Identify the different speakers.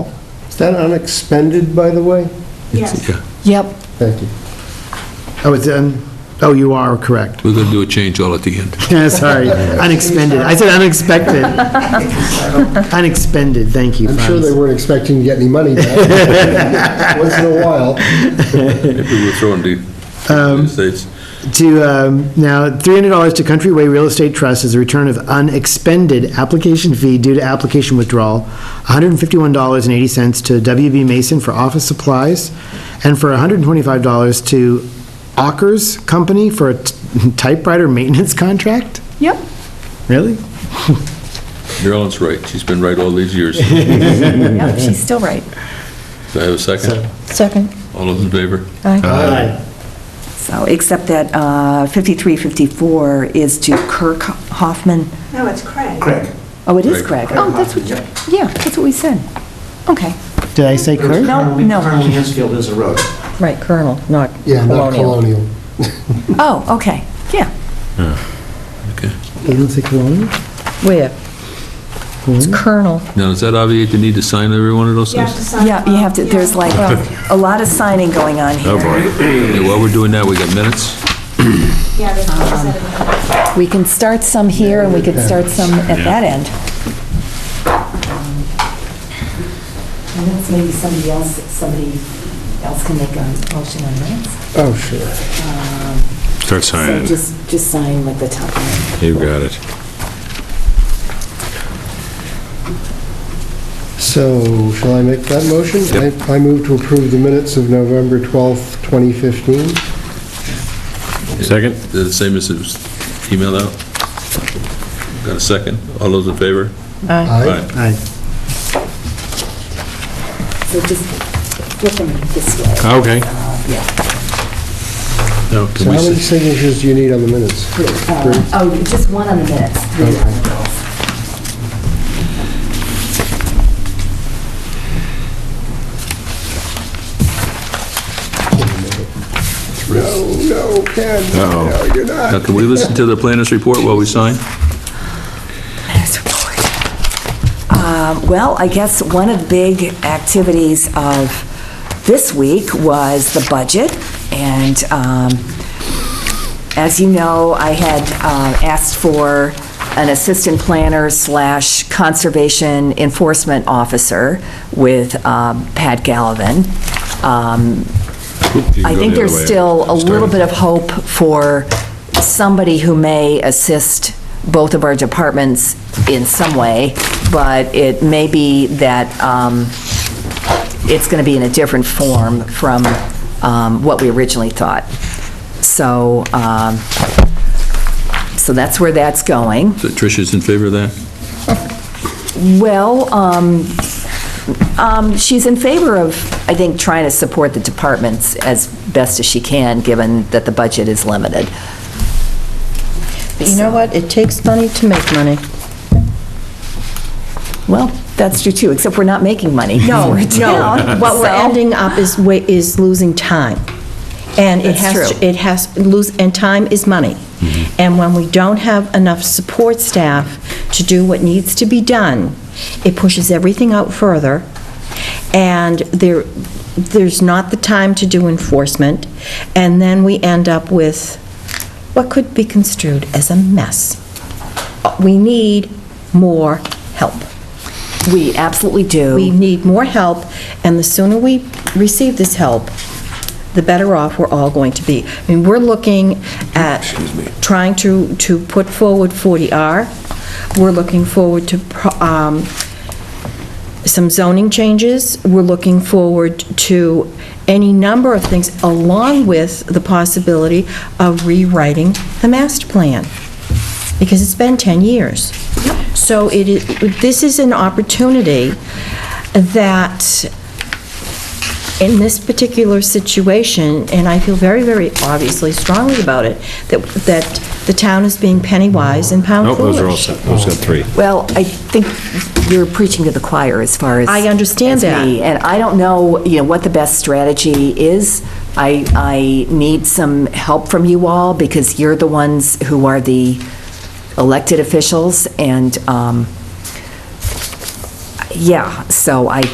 Speaker 1: Is that unexpended, by the way?
Speaker 2: Yes.
Speaker 3: Yeah,
Speaker 4: Yep.
Speaker 1: Thank you.
Speaker 5: Oh, it's, um, oh, you are correct.
Speaker 3: we're going to do a change all at the end.
Speaker 5: Yeah, Sorry, unexpended. I said unexpected. Unexpended, thank you,
Speaker 1: I'm sure they
Speaker 5: Franz.
Speaker 1: weren't expecting to get any money back. Once in a while.
Speaker 6: Maybe we'll throw in the United States.
Speaker 5: To, um, now, $300 to Countryway Real Estate Trust is a return of unexpended application fee due to application withdrawal, $151.80 to WB Mason for office supplies, and for $125 to Ockers Company for a t- typewriter maintenance contract?
Speaker 4: Yep.
Speaker 5: Really?
Speaker 6: Marilyn's right, she's been right all these years.
Speaker 4: Yep, she's still right.
Speaker 6: Do I have a second?
Speaker 4: Second.
Speaker 6: All those in favor?
Speaker 7: So, except that uh, 53, 54 is to Kirk Hoffman.
Speaker 2: No, it's Craig.
Speaker 7: Oh, it is
Speaker 6: Craig.
Speaker 7: Craig.
Speaker 4: Oh, that's what, yeah, that's what we said. Okay.
Speaker 5: Did I say Kurt?
Speaker 7: No, no.
Speaker 8: Colonel Mansfield is a road.
Speaker 9: Right, Colonel, not
Speaker 1: Yeah, not
Speaker 9: Colonial.
Speaker 1: colonial.
Speaker 7: Oh, okay, yeah.
Speaker 5: Doesn't it say Colonial?
Speaker 9: Where? It's Colonel.
Speaker 6: Now, does that obviate the need to sign every one of those
Speaker 2: You have to
Speaker 6: things?
Speaker 2: sign
Speaker 7: Yeah, you have to,
Speaker 2: off.
Speaker 7: there's like a lot of signing going on here.
Speaker 6: Yeah, While we're doing that, we got minutes?
Speaker 2: Yeah,
Speaker 7: um,
Speaker 2: there's a set of them.
Speaker 4: We can start some here and we could start some at that end.
Speaker 7: And that's maybe somebody else, somebody else can make a motion on that. Um,
Speaker 1: Oh, sure.
Speaker 3: Start
Speaker 7: So just, just sign like the top one.
Speaker 3: You got it.
Speaker 1: So, shall I make that motion? I I move to approve the minutes of November 12th, 2015.
Speaker 3: Second?
Speaker 6: Is it the same as it was emailed out? Got a second? All those in favor?
Speaker 1: Aye.
Speaker 5: Aye.
Speaker 7: So just flip them this way. Uh,
Speaker 3: Okay.
Speaker 6: No,
Speaker 1: So
Speaker 6: can we
Speaker 1: how many
Speaker 6: say?
Speaker 1: signatures do you need on the minutes?
Speaker 7: Uh, Oh, just one on the minutes. three on the bills.
Speaker 1: No, no, Ken, no, you're
Speaker 6: Now,
Speaker 1: not.
Speaker 6: can we listen to the planner's report while we sign?
Speaker 7: Um, Well, I guess one of the big activities of this week was the budget, and um, as you know, I had um, asked for an assistant planner slash conservation enforcement officer with um, Pat Gallivan. Um, I think there's still a little bit of hope for somebody who may assist both of our departments in some way, but it may be that um, it's going to be in a different form from um, what we originally thought. So, um, so that's where that's going.
Speaker 6: So Tricia's in favor of that?
Speaker 7: Well, um, um, she's in favor of, I think, trying to support the departments as best as she can, given that the budget is limited.
Speaker 9: But you know what? It takes money to make money.
Speaker 7: Well, that's true too, except we're not making money. No,
Speaker 9: What we're ending up is, wa- is losing time. And it
Speaker 7: That's
Speaker 9: has,
Speaker 7: true. Mm-hmm.
Speaker 9: to- it has, lose, and time is money. And when we don't have enough support staff to do what needs to be done, it pushes everything out further, and there, there's not the time to do enforcement, and then we end up with what could be construed as a mess. We need more help.
Speaker 7: We absolutely do.
Speaker 9: We need more help, and the sooner we receive this help, the better off we're all going to be. I mean, we're looking at trying to, to put forward 40R. We're looking forward to pro- um, some zoning changes. We're looking forward to any number of things, along with the possibility of rewriting the master plan, because it's been 10 years. So it is, this is an opportunity that, in this particular situation, and I feel very, very obviously strongly about it, that, that the town is being penny wise and pound
Speaker 10: Nope,
Speaker 9: foolish.
Speaker 10: those are all set, those got three.
Speaker 7: Well, I think you're preaching to the choir as far as...
Speaker 9: I understand
Speaker 7: as
Speaker 9: that.
Speaker 7: me, And I don't know, you know, what the best strategy is. I, I need some help from you all, because you're the ones who are the elected officials, and, um, yeah, so I